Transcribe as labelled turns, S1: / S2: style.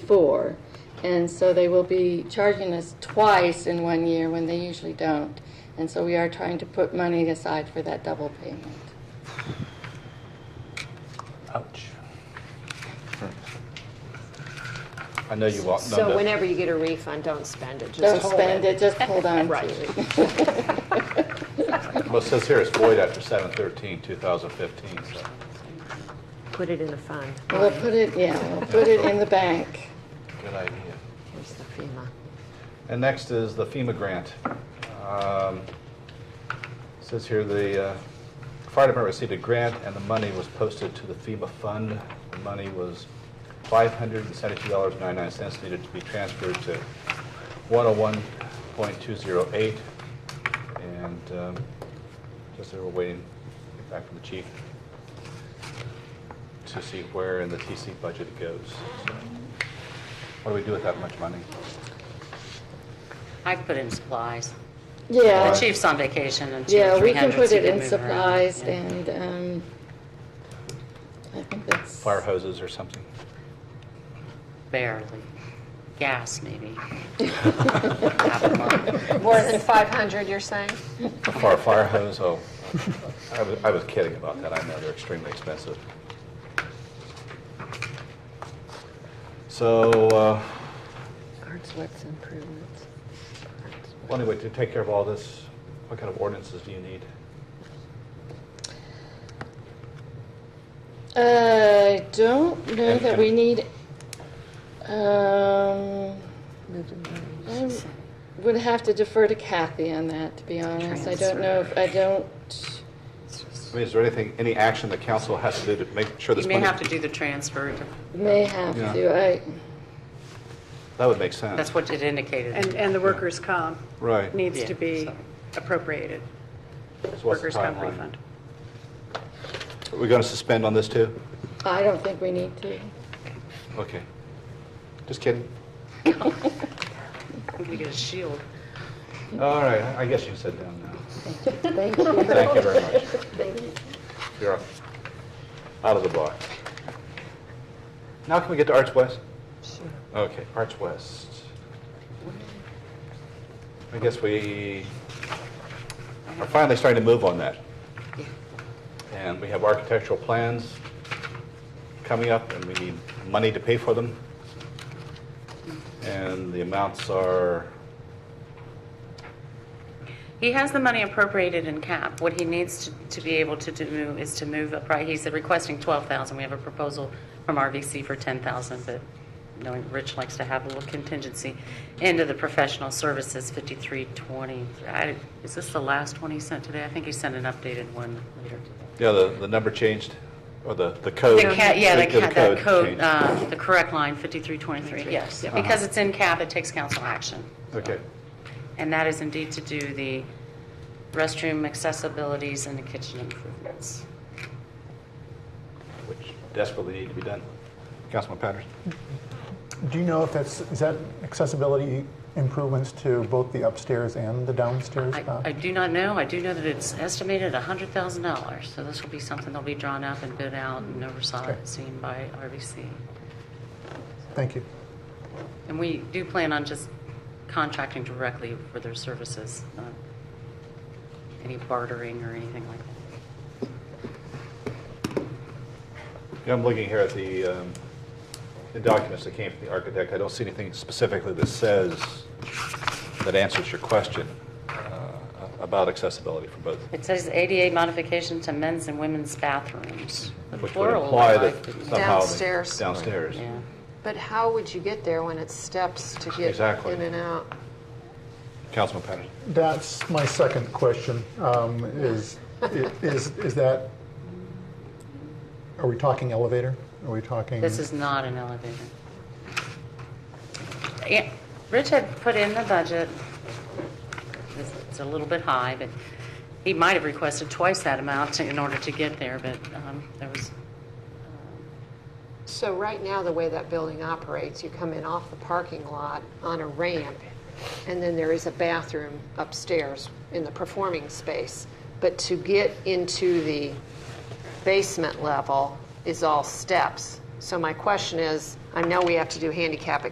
S1: before. And so they will be charging us twice in one year when they usually don't. And so we are trying to put money aside for that double payment.
S2: Ouch. I know you walked.
S3: So whenever you get a refund, don't spend it, just
S1: Don't
S3: hold
S1: spend it, just hold on to
S3: Right.
S1: it.
S2: Well, it says here it's void after 7/13/2015, so.
S3: Put it in a fund.
S1: We'll put it, yeah, we'll put it in the bank.
S2: Good idea.
S3: Here's the FEMA.
S2: And next is the FEMA grant. Um, Says here, the uh, fire department received a grant, and the money was posted to the FEMA fund. The money was $572.99 needed to be transferred to 101.208. And um, just they were waiting to get back from the chief to see where in the TC budget it goes. So, What do we do with that much money?
S4: I put in supplies. The
S1: Yeah,
S4: chief's on vacation and she had
S1: yeah, we
S4: 300.
S1: can put
S4: so
S1: it
S4: you
S1: in
S4: move around.
S1: supplies
S4: Yeah.
S1: and, um, I think that's,
S2: fire hoses or something.
S4: Barely. Gas, maybe.
S3: More than 500, you're saying?
S2: A fire, fire hose, oh, I was, I was kidding about that, I know, they're extremely expensive. So, uh,
S3: Artswitz improvements.
S2: well, anyway, to take care of all this, what kind of ordinances do you need?
S1: Uh, I don't know
S2: And
S1: that
S2: can-
S1: we need, um, I would have to defer to Kathy on that, to be honest. I don't know if, I don't,
S2: I mean, is there anything, any action the council has to do to make sure this
S4: You may
S2: money?
S4: have to do the transfer.
S1: may have
S2: Yeah.
S1: to, I,
S2: That would make sense.
S4: That's what it indicated.
S5: And, and the workers' comp
S2: Right.
S5: needs
S4: Yeah,
S5: to be
S4: so.
S5: appropriated,
S2: So what's the
S5: workers' comp
S2: timeline?
S5: refund.
S2: Are we going to suspend on this too?
S1: I don't think we need to.
S2: Okay. Just kidding.
S4: I'm going to get a shield.
S2: All right, I I guess you can sit down now.
S1: Thank you.
S2: Thank you very much. You're off. out of the box. Now can we get to Arts West? Sure. Okay, Arts West. I guess we are finally starting to move on that. And we have architectural plans coming up, and we need money to pay for them. And the amounts are,
S4: He has the money appropriated in cap. What he needs to, to be able to do is to move up, right? He's requesting 12,000. We have a proposal from RVC for 10,000, but knowing Rich likes to have a little contingency. Into the professional services, 5320. I- Is this the last one he sent today? I think he sent an updated one later today.
S2: you know, the, the number changed, or the, the code.
S4: The ca, yeah, the ca, that code,
S2: changed.
S4: uh, the correct line, 5323, yes. Because it's in cap, it takes council action.
S2: Okay.
S4: And that is indeed to do the restroom accessibilities and the kitchen improvements.
S2: which desperately need to be done. Councilman Patterson?
S6: Do you know if that's, is that accessibility improvements to both the upstairs and the downstairs?
S4: I,
S6: Bob?
S4: I do not know, I do know that it's estimated $100,000, so this will be something that'll be drawn up and bid out and oversaw,
S6: Okay.
S4: seen by RBC.
S6: Thank you.
S4: And we do plan on just contracting directly for their services, not any bartering or anything like that.
S2: Yeah, I'm looking here at the, um, the documents that came from the architect. I don't see anything specifically that says, that answers your question uh, about accessibility for both.
S4: It says ADA modification to men's and women's bathrooms. The
S2: Which would
S4: plural,
S2: imply
S4: I
S2: that
S4: like it.
S2: somehow. they-
S3: Downstairs.
S2: Downstairs.
S4: Yeah.
S3: But how would you get there when it's steps to get
S2: Exactly.
S3: in and out?
S2: Councilman Patterson?
S6: That's my second question, um, is, is, is that, are we talking elevator? Are we talking?
S4: This is not an elevator. Yeah, Rich had put in the budget, this- it's a little bit high, but he might have requested twice that amount in order to get there, but um, there was,
S3: So right now, the way that building operates, you come in off the parking lot on a ramp, and then there is a bathroom upstairs in the performing space. But to get into the basement level is all steps. So my question is, I know we have to do handicap